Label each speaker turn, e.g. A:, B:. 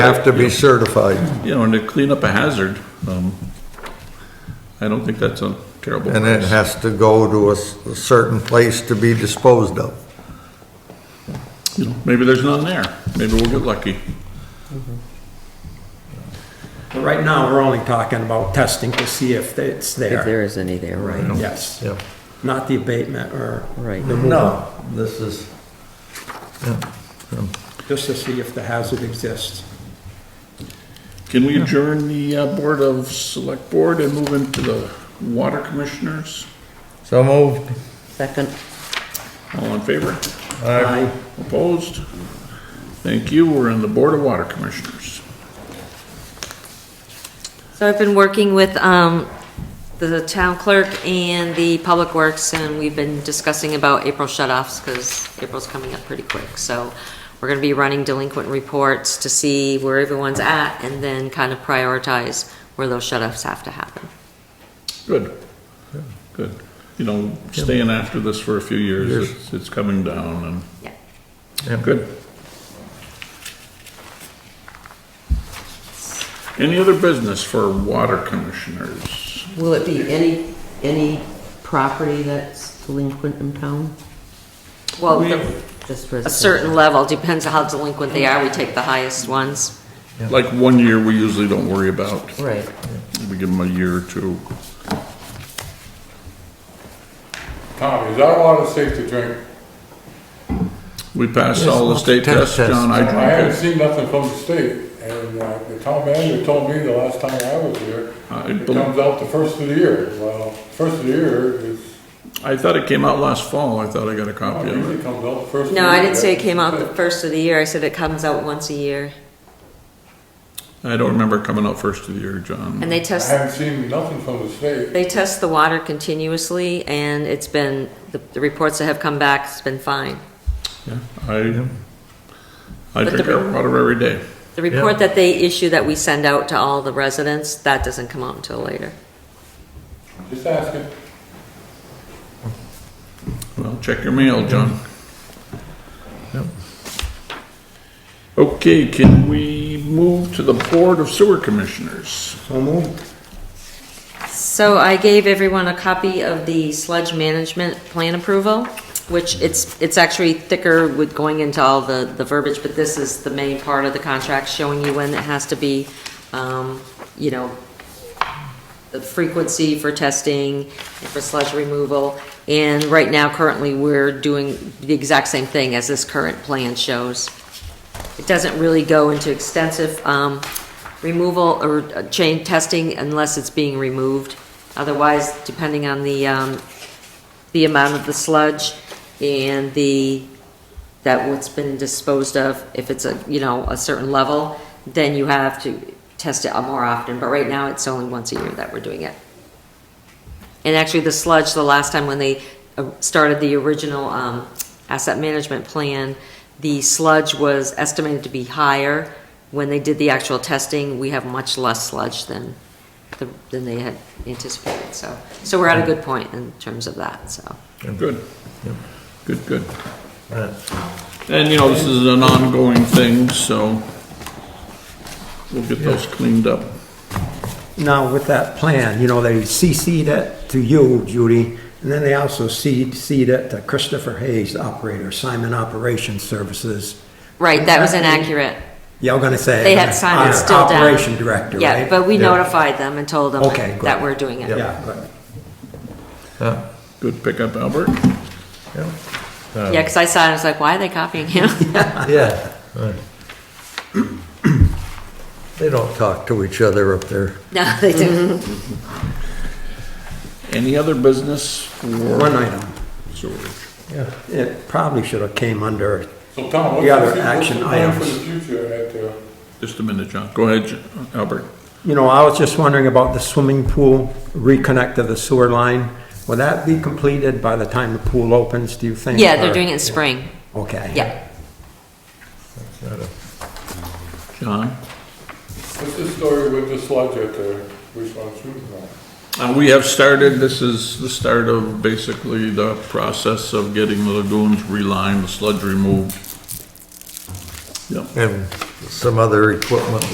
A: have to be certified,
B: you know, and to clean up a hazard, um, I don't think that's a terrible
A: and it
B: price.
A: has to go to a s- a certain place to be disposed of.
B: You know, Maybe there's none there, maybe we'll get lucky.
C: But right now, we're only talking about testing to see if it's
D: If
C: there.
D: there is any there, right?
C: Yes,
A: Yeah.
C: not the abatement or
D: Right.
C: removal,
A: this is.
C: just to see if the hazard exists.
B: Can we adjourn the uh, Board of Select Board and move into the Water Commissioners?
A: So moved.
D: Second,
B: All in favor?
C: Aye.
B: Opposed? Thank you, we're in the Board of Water Commissioners.
E: So I've been working with um, the town clerk and the public works, and we've been discussing about April shut-offs, because April's coming up pretty quick. So we're going to be running delinquent reports to see where everyone's at, and then kind of prioritize where those shut-offs have to happen.
B: Good, good. You know, staying after this for a few years, it's, it's coming down
E: Yeah.
B: and, good. Any other business for Water Commissioners?
D: will it be any, any property that's delinquent in town?
E: Well,
B: We-
E: the-
D: Just
E: a
D: residential?
E: certain level, depends on how delinquent they are, we take the highest ones.
B: Like one year, we usually don't worry about.
D: Right.
B: We give them a year or two.
F: Tommy, is that water safe to drink?
B: We passed all the state tests, John.
F: I
B: I,
F: haven't seen nothing from the state, and uh, the town manager told me the last time I was here,
B: I
F: it
B: bel-
F: comes out the first of the year. Well, first of the year is,
B: I thought it came out last fall. I thought I got a
F: it
B: copy of it.
F: usually comes out the first. of the
E: No, I
F: year.
E: didn't say it came out the first of the year, I said it comes out once a year.
B: I don't remember it coming out first of the year, John.
E: And they
F: I
E: test
F: haven't seen nothing from the state.
E: They test the water continuously, and it's been, the the reports that have come back, it's been fine.
B: Yeah, I, I
E: But
B: drink
E: the-
B: our water every day.
E: The report that they issue that we send out to all the residents, that doesn't come out until later.
F: Just asking.
B: Well, check your mail, John. Okay, can we move to the Board of Sewer Commissioners?
C: So moved.
E: So I gave everyone a copy of the sludge management plan approval, which it's, it's actually thicker with going into all the, the verbiage, but this is the main part of the contract showing you when it has to be, um, you know, the frequency for testing, and for sludge removal. And right now, currently, we're doing the exact same thing as this current plan shows. It doesn't really go into extensive um, removal or uh, chain testing unless it's being removed. Otherwise, depending on the, um, the amount of the sludge and the, that what's been disposed of, if it's a, you know, a certain level, then you have to test it more often. But right now, it's only once a year that we're doing it. And actually, the sludge, the last time when they uh, started the original um, asset management plan, the sludge was estimated to be higher. When they did the actual testing, we have much less sludge than, the- than they had anticipated, so. So we're at a good point in terms of that, so.
B: Good. Good, good. And, you know, this is an ongoing thing, so we'll get those cleaned up.
C: Now, with that plan, you know, they CC'd it to you, Judy, and then they also CC'd it to Christopher Hayes, operator, Simon Operations Services.
E: Right, that was inaccurate.
C: Y'all gonna say.
E: They had Simon
C: Uh,
E: still down.
C: Operation Director, right?
E: Yeah, but we
A: Yeah.
E: notified them and told them
C: Okay, good.
E: that we're doing it.
C: Yeah, good.
B: Good pickup, Albert.
E: Yeah, because I saw it, I was like, why are they copying him?
A: Yeah. They don't talk to each other up there.
E: No, they didn't.
B: Any other business
C: One
B: for
C: item.
B: sewer?
C: It probably should have came under
F: So Tom, what's
C: The other
F: the fu- what's
C: action
F: the plan for
C: items.
F: the future at uh, the?
B: Just a minute, John. Go ahead, J- Albert.
C: You know, I was just wondering about the swimming pool reconnect to the sewer line. Will that be completed by the time the pool opens, do you think?
E: Yeah, they're
C: or-
E: doing it in spring,
C: Okay.
E: yeah.
B: John?
F: What's the story with the sludge at the, which one's shooting on?
B: Uh, we have started, this is the start of basically the process of getting the lagoons relined, the sludge removed. Yep,
A: And some other equipment